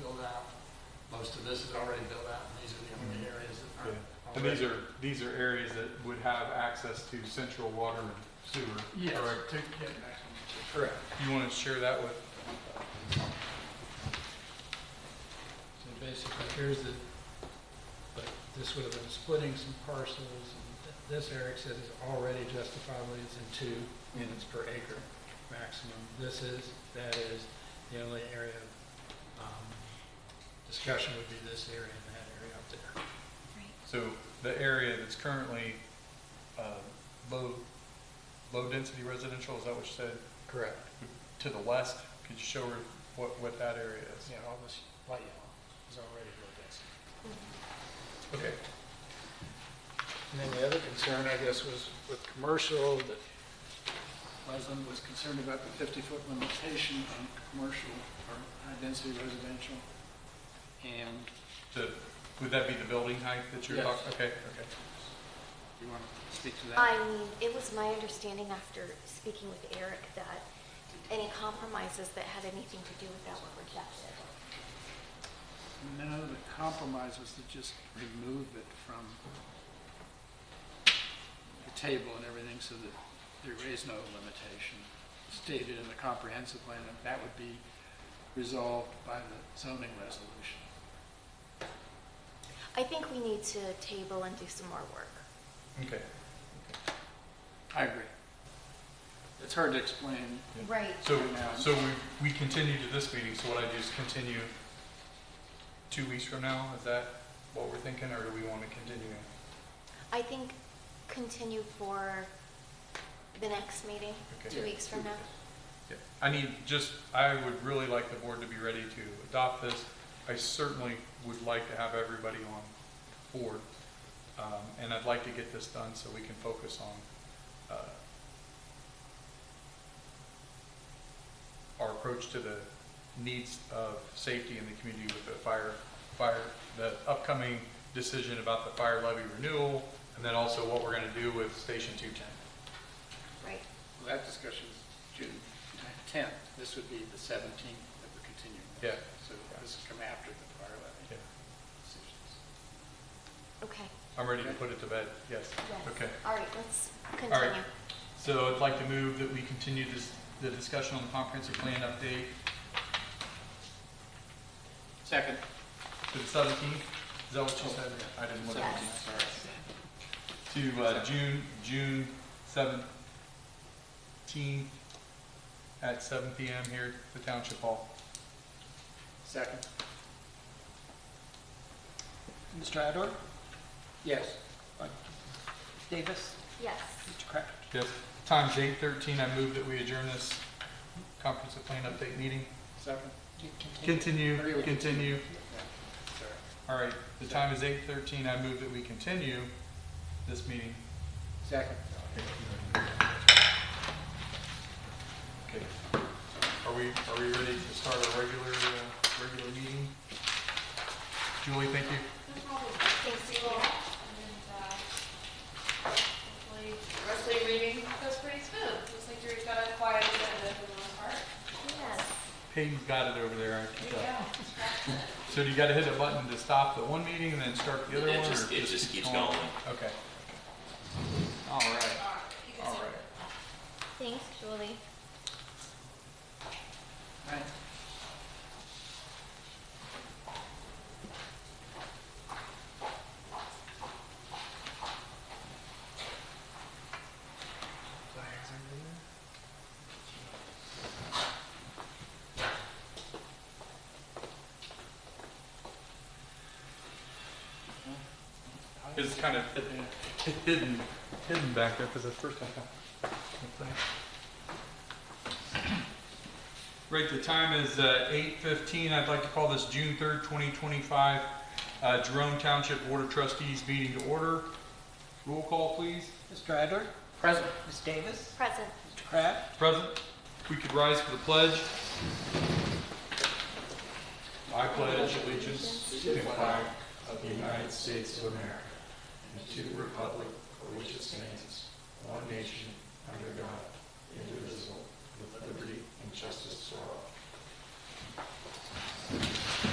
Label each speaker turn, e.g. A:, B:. A: built out. Most of this is already built out, and these are the only areas that
B: Yeah.
A: aren't.
B: And these
A: already-
B: are, these are areas that would have access to central water and sewer.
A: Yes,
B: correct?
A: to get back on.
B: Correct. You want to share that with,
A: So basically, here's the, but this would have been splitting some parcels, and th- this Eric says is already justifiably, it's in two units per acre maximum. This is, that is, the only area of um, discussion would be this area and that area up there.
B: so the area that's currently uh, low, low-density residential, is that what you said?
A: Correct.
B: To the west, could you show her what, what that area is?
A: Yeah, all this light yellow is already real density.
B: Okay.
A: And then the other concern, I guess, was with commercial, that Leslie was concerned about the 50-foot limitation on commercial or high-density residential. And
B: The, would that be the building height that you're
A: Yes.
B: talking? Okay, okay.
A: you want to speak to
C: I
A: that?
C: mean, it was my understanding after speaking with Eric that any compromises that had anything to do with that were rejected.
A: No, the compromise was to just remove it from the table and everything so that there is no limitation stated in the comprehensive plan, and that would be resolved by the zoning resolution.
C: I think we need to table and do some more work.
B: Okay.
A: I agree. It's hard to explain.
C: Right.
B: So, so we, we continue to this meeting, so what I do is continue two weeks from now, is that what we're thinking, or do we want to continue?
C: I think continue for the next meeting, two
B: Okay.
C: weeks from now.
B: Yeah. I need, just, I would really like the board to be ready to adopt this. I certainly would like to have everybody on board, um, and I'd like to get this done so we can focus on, uh, our approach to the needs of safety in the community with the fire, fire, the upcoming decision about the fire levy renewal, and then also what we're gonna do with Station 210.
C: Right.
A: That discussion is June 10th. This would be the 17th that we're continuing.
B: Yeah.
A: So this has come after the prior levy
B: Yeah.
A: decisions.
C: Okay.
B: I'm ready to put it to bed, yes.
C: Yes.
B: Okay.
C: All right, let's
B: All right.
C: continue.
B: So I'd like to move that we continue this, the discussion on the comprehensive plan update
A: Second.
B: to the seventeenth. Is that what you said? I didn't look at
C: Yes.
B: it. To, uh, June, June seventeenth at seven P M here at the Township Hall.
A: Second.
D: Mr. Adler?
A: Yes.
D: Davis?
C: Yes.
D: Mr. Crafton?
B: Yes, time's eight thirteen. I move that we adjourn this comprehensive plan update meeting.
A: Second.
B: Continue,
A: Agree with you.
B: continue.
A: Sorry.
B: All right, the time is eight thirteen. I move that we continue this meeting.
A: Second.
B: Okay. Are we, are we ready to start our regular, uh, regular meeting? Julie, thank you.
C: Thanks, you all.
E: Hopefully, uh, the rest of your meeting goes pretty smooth. Looks like you've got a quiet agenda for the most part.
C: Yes.
B: Peyton's got it over there. I can
E: There you
B: tell.
E: go.
B: So do you gotta hit a button to stop the one meeting and then start the other one?
F: It
B: or
F: just, it just keeps
B: on?
F: going.
B: Okay. All right,
E: All right, you can
B: all
E: sit.
B: right.
C: Thanks, Julie.
A: Right.
B: It's kind of hidden, hidden back there because that's first I found. Right, the time is uh, eight fifteen. I'd like to call this June third, twenty twenty-five, uh, Jerome Township Board of Trustees meeting to order. Roll call, please.
D: Mr. Adler?
A: Present.
D: Ms. Davis?
C: Present.
D: Mr. Kraft?
B: Present. If we could rise for the pledge. I pledge allegiance to the flag of the United States of America and to the republic